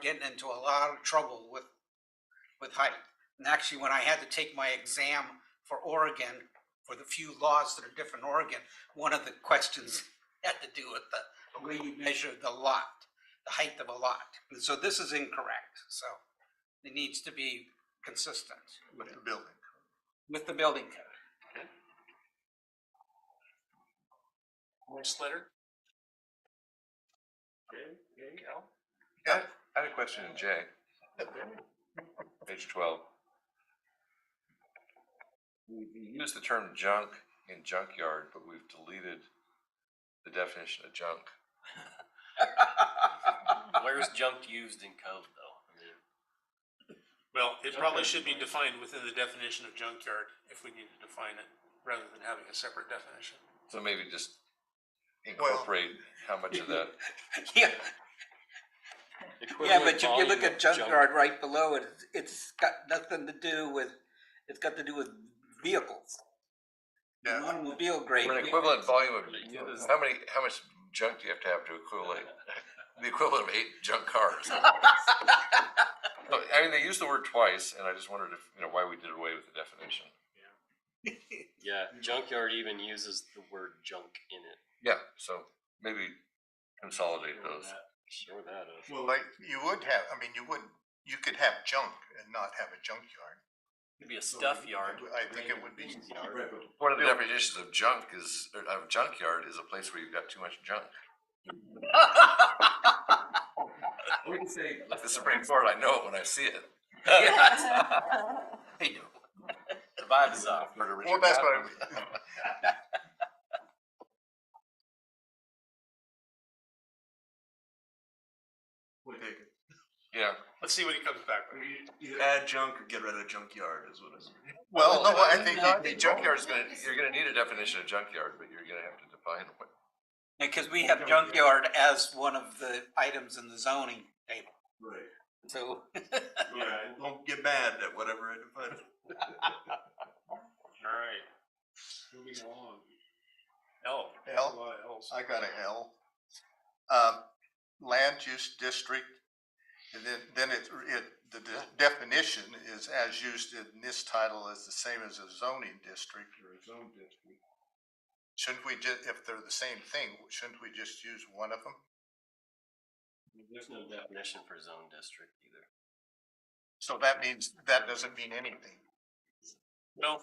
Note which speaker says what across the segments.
Speaker 1: getting into a lot of trouble with, with height. And actually, when I had to take my exam for Oregon, for the few laws that are different in Oregon, one of the questions had to do with the the way you measure the lot, the height of a lot. And so this is incorrect, so it needs to be consistent
Speaker 2: with the building.
Speaker 1: with the building code.
Speaker 3: Next letter. Cal?
Speaker 4: Yeah, I had a question in J. Page twelve. We we use the term junk in junkyard, but we've deleted the definition of junk.
Speaker 5: Where's junk used in code though? I mean,
Speaker 3: Well, it probably should be defined within the definition of junkyard, if we need to define it, rather than having a separate definition.
Speaker 4: So maybe just incorporate how much of that,
Speaker 1: Yeah, yeah,
Speaker 5: equivalent
Speaker 1: but if you look
Speaker 5: volume
Speaker 1: at
Speaker 5: of
Speaker 1: junkyard right below it, it's got nothing to do with, it's got to do with vehicles.
Speaker 2: Yeah.
Speaker 1: Automobile grade.
Speaker 4: for an equivalent volume of,
Speaker 5: Ridiculous.
Speaker 4: how many, how much junk do you have to have to equivalent? The equivalent of eight junk cars. No, I mean, they used the word twice, and I just wondered if, you know, why we did away with the definition.
Speaker 5: Yeah, junkyard even uses the word junk in it.
Speaker 4: Yeah, so maybe consolidate those.
Speaker 5: Sure that is.
Speaker 2: Well, like, you would have, I mean, you would, you could have junk and not have a junkyard.
Speaker 5: It'd be a stuff yard.
Speaker 2: I think it would be-
Speaker 5: Convenience yard.
Speaker 4: One of the definitions of junk is, or of junkyard is a place where you've got too much junk.
Speaker 1: We can say
Speaker 4: Like the Supreme Court, I know it when I see it.
Speaker 1: I know.
Speaker 5: The vibe is off.
Speaker 4: Heard of
Speaker 2: Well,
Speaker 4: Richard
Speaker 2: that's what
Speaker 4: Madden.
Speaker 2: I,
Speaker 6: We'll take it.
Speaker 4: Yeah,
Speaker 3: Let's see what he comes back with.
Speaker 6: Either add junk or get rid of junkyard is what it's.
Speaker 2: well, no, I think
Speaker 4: No, I
Speaker 2: you'd
Speaker 4: think
Speaker 2: be
Speaker 4: junkyard is gonna, you're gonna need a definition of junkyard, but you're gonna have to define what.
Speaker 1: Because we have junkyard as one of the items in the zoning table,
Speaker 6: Right.
Speaker 1: so.
Speaker 6: Yeah, don't get mad at whatever I define.
Speaker 3: Alright. Moving along. L.
Speaker 2: L.
Speaker 3: A lot of Ls.
Speaker 2: I got an L. Um, land use district, and then, then it, it, the de- definition is as used in this title is the same as a zoning district. Or a zone district. Shouldn't we ju, if they're the same thing, shouldn't we just use one of them?
Speaker 5: There's no definition for zone district either.
Speaker 2: So that means, that doesn't mean anything.
Speaker 3: No.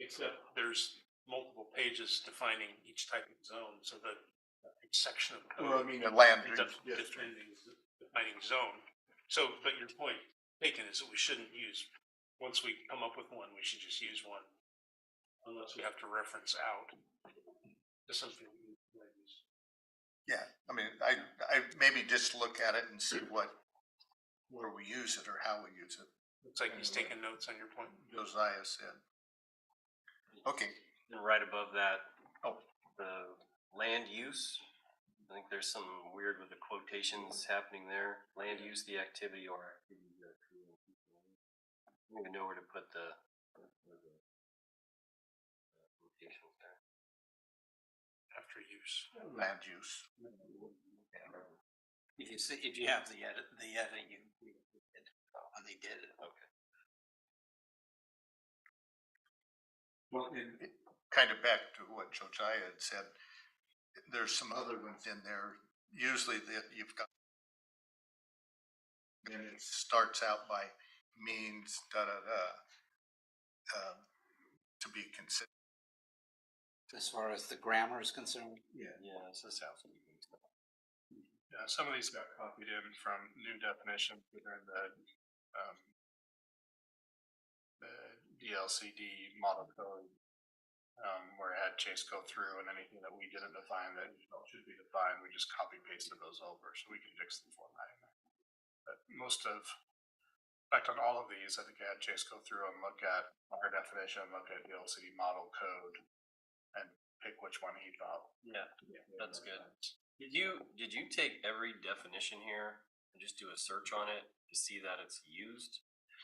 Speaker 3: Except there's multiple pages defining each type of zone, so that each section of code
Speaker 2: mean. The land
Speaker 3: ends
Speaker 2: use
Speaker 3: up
Speaker 2: district.
Speaker 3: defining, defining zone. So, but your point taken is that we shouldn't use, once we come up with one, we should just use one. Unless we have to reference out to something. we might use.
Speaker 2: Yeah, I mean, I, I maybe just look at it and see what, where we use it or how we use it,
Speaker 3: Looks like he's taking notes on your point.
Speaker 2: Josiah said. Okay,
Speaker 5: And right above that,
Speaker 2: Oh.
Speaker 5: the land use. I think there's some weird with the quotations happening there. Land use, the activity or. activity that creates the land. I don't even know where to put the. where the, uh, quotations there.
Speaker 3: after use.
Speaker 2: land use.
Speaker 1: If you see, if you have the edit, the edit, you, you did, and uh, they did it.
Speaker 2: Well, and it- kind of back to what Josiah had said, there's some other ones in there, usually that you've got. And it starts out by means, da, da, da, um, to be considered.
Speaker 1: As far as the grammar is concerned.
Speaker 5: Yeah, it's this house.
Speaker 7: Yeah, some of these got copied in from new definitions within the, um, the DLCD model code, um, where it had Chase go through and anything that we didn't define that we felt should be defined, we just copy pasted those over, so we can fix the formatting. But most of, in fact, on all of these, I think I had Chase go through and look at our definition, look at DLCD model code, and pick which one he thought.
Speaker 5: Yeah, that's good. Did you, did you take every definition here and just do a search on it to see that it's used?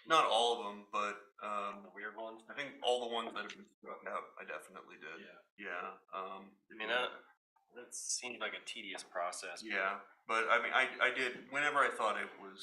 Speaker 6: Not all of them, but um,
Speaker 5: The weird ones?
Speaker 6: I think all the ones that have been struck out, I definitely did.
Speaker 5: Yeah.
Speaker 6: Yeah. Um,
Speaker 5: I mean, that, that seems like a tedious process. but
Speaker 6: yeah.
Speaker 7: But I mean, I, I did, whenever I thought it was